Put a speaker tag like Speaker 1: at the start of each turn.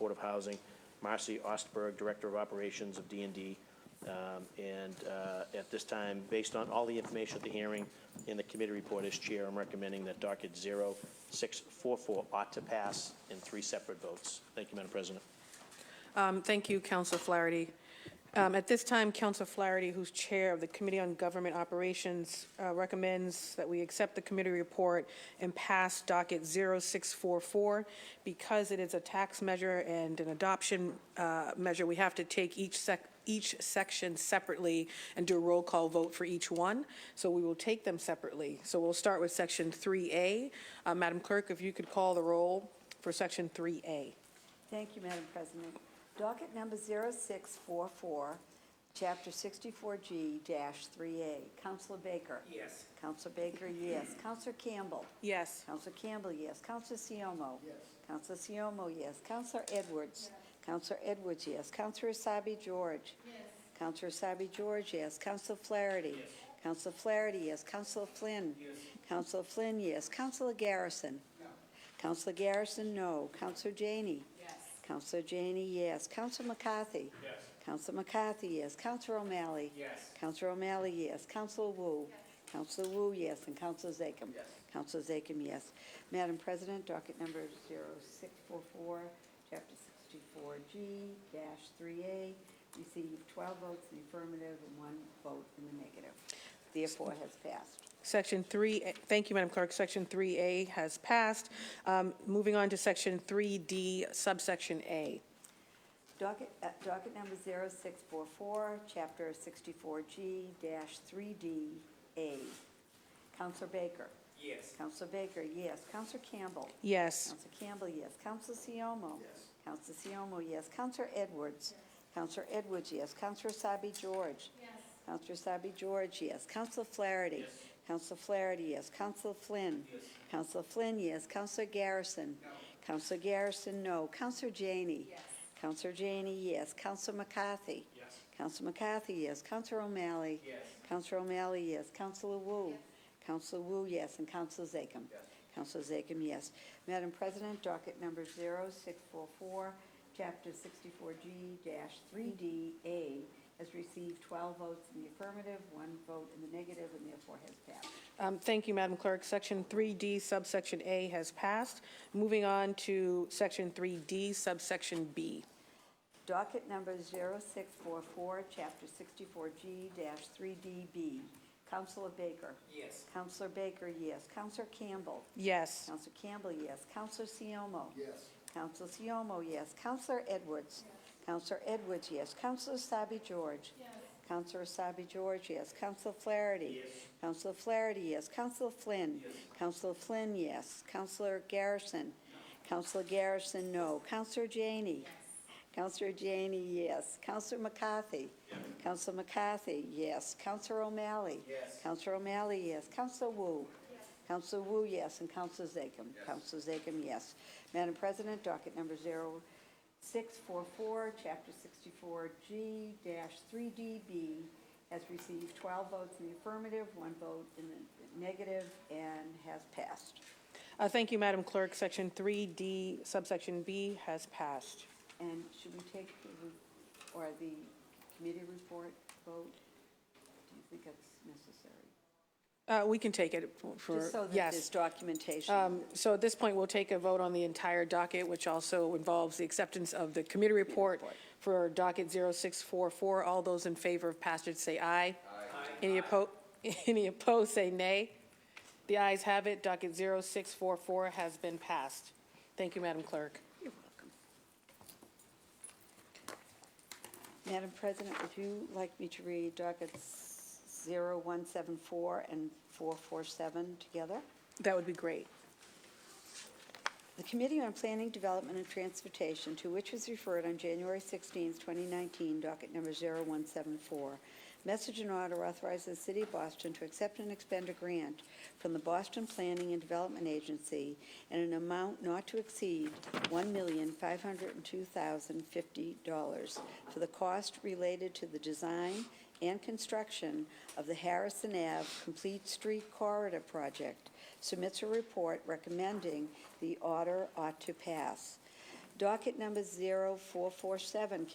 Speaker 1: Housing, Marcy Ostberg, Director of Operations of D and D. Um, And uh, at this time, based on all the information at the hearing and the committee report as chair, I'm recommending that docket 0644 ought to pass in three separate votes. Thank you, Madam President.
Speaker 2: Um, Thank you, Council Flaherty. Um, At this time, Council Flaherty, who's Chair of the Committee on Government Operations, uh, recommends that we accept the committee report and pass docket 0644. Because it is a tax measure and an adoption uh, measure, we have to take each sec, each section separately and do a roll call vote for each one. So we will take them separately. So we'll start with Section 3A. Uh, Madam Clerk, if you could call the roll for Section 3A.
Speaker 3: Thank you, Madam President. Docket number 0644, Chapter 64G-3A. Counselor Baker? Yes. Counselor Baker, yes. Counselor Campbell?
Speaker 2: Yes.
Speaker 3: Counselor Campbell, yes. Counselor Siomo? Yes. Counselor Siomo, yes. Counselor Edwards? Counselor Edwards, yes. Counselor Asabi George? Yes. Counselor Asabi George, yes. Counselor Flaherty? Yes. Counselor Flaherty, yes. Counselor Flynn? Yes. Counselor Flynn, yes. Counselor Garrison? No. Counselor Garrison, no. Counselor Janey? Yes. Counselor Janey, yes. Counselor McCarthy? Yes. Counselor McCarthy, yes. Counselor O'Malley? Yes. Counselor O'Malley, yes. Counselor Wu? Counselor Wu, yes, and Counselor Zachem. Yes. Counselor Zachem, yes. Madam President, docket number 0644, Chapter 64G-3A, received 12 votes in the affirmative and one vote in the negative. Therefore, has passed.
Speaker 2: Section 3, thank you, Madam Clerk, Section 3A has passed. Um, Moving on to Section 3D subsection A.
Speaker 3: Docket, uh, docket number 0644, Chapter 64G-3DA. Counselor Baker. Yes. Counselor Baker, yes. Counselor Campbell.
Speaker 2: Yes.
Speaker 3: Counselor Campbell, yes. Counselor Siomo. Yes. Counselor Siomo, yes. Counselor Edwards. Counselor Edwards, yes. Counselor Sabi George. Yes. Counselor Sabi George, yes. Counselor Flaherty. Yes. Counselor Flaherty, yes. Counselor Flynn. Yes. Counselor Flynn, yes. Counselor Garrison. No. Counselor Garrison, no. Counselor Janey. Yes. Counselor Janey, yes. Counselor McCarthy. Yes. Counselor McCarthy, yes. Counselor O'Malley. Yes. Counselor O'Malley, yes. Counselor Wu. Yes. Counselor Wu, yes. And Counselor Zachem. Yes. Counselor Zachem, yes. Madam President, docket number 0644, Chapter 64G-3DA has received 12 votes in the affirmative, one vote in the negative, and therefore has passed.
Speaker 2: Um, Thank you, Madam Clerk, Section 3D subsection A has passed. Moving on to Section 3D subsection B.
Speaker 3: Docket number 0644, Chapter 64G-3DB. Counselor Baker. Yes. Counselor Baker, yes. Counselor Campbell.
Speaker 2: Yes.
Speaker 3: Counselor Campbell, yes. Counselor Siomo. Yes. Counselor Siomo, yes. Counselor Edwards. Counselor Edwards, yes. Counselor Sabi George. Yes. Counselor Sabi George, yes. Counselor Flaherty. Yes. Counselor Flaherty, yes. Counselor Flynn. Yes. Counselor Flynn, yes. Counselor Garrison. Counselor Garrison, no. Counselor Janey. Yes. Counselor Janey, yes. Counselor McCarthy. Counselor McCarthy, yes. Counselor O'Malley. Yes. Counselor O'Malley, yes. Counselor Wu. Counselor Wu, yes, and Counselor Zachem. Counselor Zachem, yes. Madam President, docket number 0644, Chapter 64G-3DB has received 12 votes in the affirmative, one vote in the negative, and has passed.
Speaker 2: Uh, Thank you, Madam Clerk, Section 3D subsection B has passed.
Speaker 3: And should we take the, re- or the committee report vote? Do you think that's necessary?
Speaker 2: Uh, We can take it for, yes.
Speaker 3: Just so that there's documentation.
Speaker 2: Um, So at this point, we'll take a vote on the entire docket, which also involves the acceptance of the committee report for docket 0644. All those in favor of passage, say aye. Aye. Any opposed, any opposed, say nay. The ayes have it, docket 0644 has been passed. Thank you, Madam Clerk.
Speaker 3: Madam President, would you like me to read dockets 0174 and 447 together?
Speaker 2: That would be great.
Speaker 3: The Committee on Planning, Development, and Transportation, to which was referred on January 16, 2019, docket number 0174, message and order authorizes the City of Boston to accept and expend a grant from the Boston Planning and Development Agency in an amount not to exceed $1,502,050 for the cost related to the design and construction of the Harrison Ave Complete Street Corridor Project, submits a report recommending the order ought to pass. Docket number 0447,